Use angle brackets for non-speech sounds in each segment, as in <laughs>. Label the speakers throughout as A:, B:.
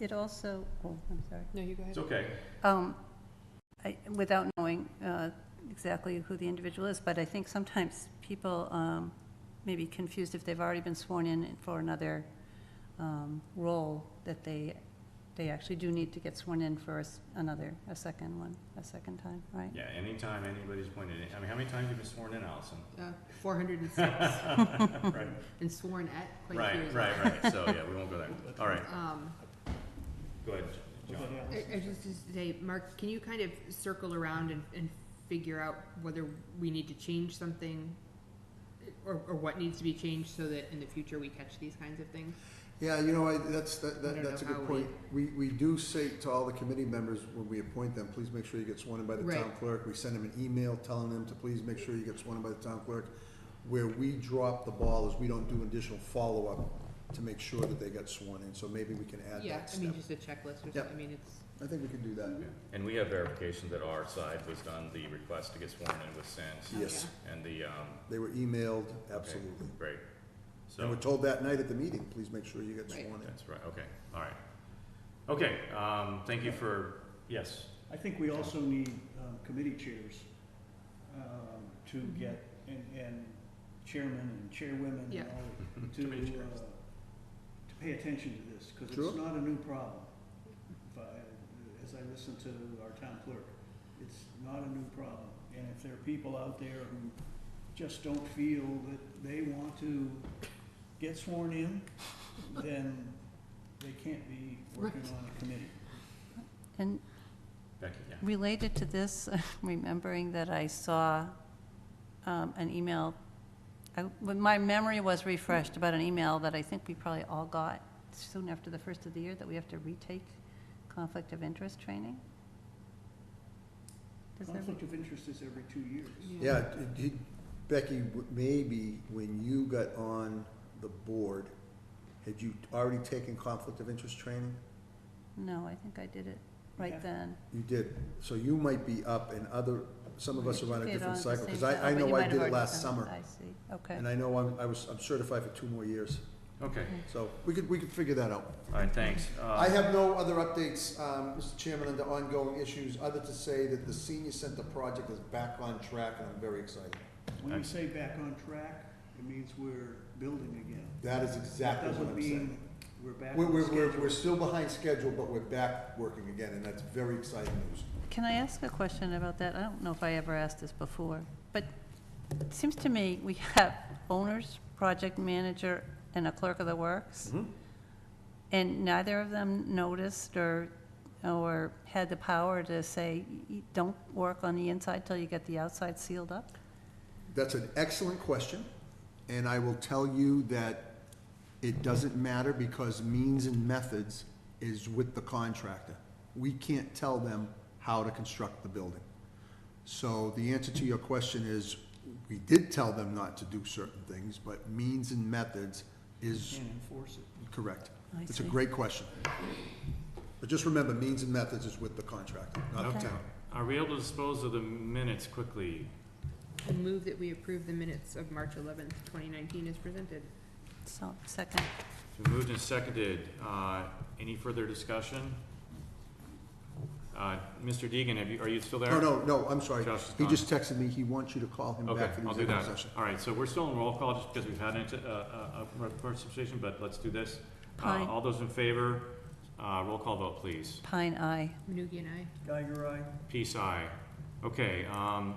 A: It also, oh, I'm sorry.
B: No, you go ahead.
C: It's okay.
A: Um, I- Without knowing uh, exactly who the individual is, but I think sometimes people um, may be confused if they've already been sworn in for another um, role, that they, they actually do need to get sworn in for a s- another, a second one, a second time, right?
C: Yeah, anytime anybody's appointed, I mean, how many times have you been sworn in, Allison?
B: Uh,
D: <laughs>
B: 406,
C: Right,
B: and sworn at quite a few
C: right,
B: as well.
C: right, right, so, yeah, we won't go there.
D: <laughs>
C: All right,
B: Um,
C: go ahead, John.
B: I, I just, just say, Mark, can you kind of circle around and, and figure out whether we need to change something? Or, or what needs to be changed so that in the future we catch these kinds of things?
D: Yeah, you know, I, that's, that,
B: I don't
D: that, that's a
B: know
D: good
B: how we-
D: point. We, we do say to all the committee members, when we appoint them, please make sure you get sworn in by the town
B: Right.
D: clerk. We send them an email telling them to please make sure you get sworn in by the town clerk. Where we drop the ball is we don't do additional follow-up to make sure that they got sworn in, so maybe we can add
B: Yeah,
D: that
B: I mean,
D: step.
B: just a checklist or
D: Yep.
B: something, I mean, it's,
D: I think we can do that.
C: And we have verification that our side was done, the request to get sworn in was sent,
D: Yes,
C: and the, um,
D: they were emailed, absolutely.
C: great.
D: And
C: So,
D: we're told that night at the meeting, please make sure you get
B: Right.
D: sworn in.
C: that's right, okay, all right. Okay, um, thank you for, yes,
E: I think we also need um, committee chairs um, to get, and and chairmen and chairwomen
B: Yeah.
E: and
C: <laughs>
E: all, to,
C: Committee
E: uh,
C: chairs.
E: to pay attention to this, because
D: Sure.
E: it's not a new problem. If I- As I listen to our town clerk, it's not a new problem. And if there are people out there who just don't feel that they want to get sworn in, then they can't be working on a committee.
A: And
C: Becky, yeah.
A: Related to this, <laughs> remembering that I saw um, an email, I- when my memory was refreshed about an email that I think we probably all got soon after the first of the year, that we have to retake conflict of interest training? Does that-
E: Conflict of interest is every two years.
D: Yeah, it- it- Becky, w- maybe when you got on the board, had you already taken conflict of interest training?
A: No, I think I did it right
E: Okay.
A: then.
D: You did, so you might be up and other, some of us are on a
A: Did it
D: different
A: the
D: cycle,
A: same
D: because
A: time.
D: I, I
A: Oh, but you
D: know
A: might
D: I
A: have
D: did it
A: already
D: last
A: done it.
D: summer.
A: I see, okay.
D: And I know I'm, I was, I'm certified for two more years,
C: Okay,
D: so we could, we could figure that out.
C: all right, thanks. Uh,
D: I have no other updates, um, Mr. Chairman, on the ongoing issues, other to say that the senior center project is back on track, and I'm very excited.
E: When you say back on track, it means we're building again.
D: That is exactly what
E: Doesn't
D: I'm saying.
E: mean we're back
D: We're,
E: on
D: we're, we're,
E: schedule.
D: we're still behind schedule, but we're back working again, and that's very exciting news.
A: Can I ask a question about that? I don't know if I ever asked this before, but it seems to me we have owners, project manager, and a clerk of the works.
D: Mm-hmm.
A: And neither of them noticed or, or had the power to say, "Y- y- don't work on the inside till you get the outside sealed up?
D: That's an excellent question, and I will tell you that it doesn't matter because means and methods is with the contractor. We can't tell them how to construct the building. So the answer to your question is, we did tell them not to do certain things, but means and methods is
E: Can't enforce it.
D: correct.
A: I
D: It's a
A: see.
D: great question. But just remember, means and methods is with the contractor, not the
A: Okay.
D: town.
C: Are we able to dispose of the minutes quickly?
B: I move that we approve the minutes of March eleventh, twenty nineteen as presented.
A: So, second,
C: It's been moved and seconded. Uh, Any further discussion? Uh, Mr. Deegan, have you, are you still there?
D: No, no, no, I'm sorry.
C: Josh is
D: He
C: gone.
D: just texted me, he wants you to call him
C: Okay,
D: back for the
C: I'll do
D: executive
C: that.
D: session.
C: All right, so we're still in roll call just because we've had an, uh, uh, a participation, but let's do this. Uh,
A: Aye.
C: All those in favor, uh, roll call vote, please.
A: pine eye.
B: Manugie and I.
E: Geiger, aye.
C: Peace, aye. Okay, um,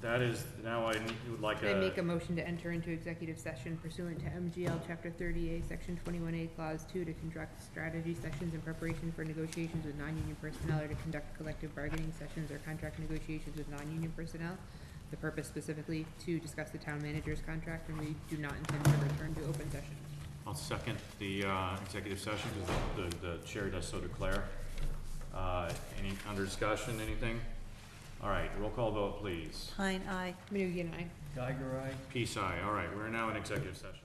C: that is, now I need- would like
B: I make
C: a,
B: a motion to enter into executive session pursuant to MGL Chapter 38, Section 21A, Clause 2, to conduct strategy sessions in preparation for negotiations with non-union personnel or to conduct collective bargaining sessions or contract negotiations with non-union personnel. The purpose specifically to discuss the town manager's contract, and we do not intend to return to open session.
C: I'll second the uh, executive session because the, the chair does so declare. Uh, Any, under discussion, anything? All right, roll call vote, please.
A: Pine eye.
B: Manugie and I.
E: Geiger, aye.
C: Peace, aye. All right, we're now in executive session.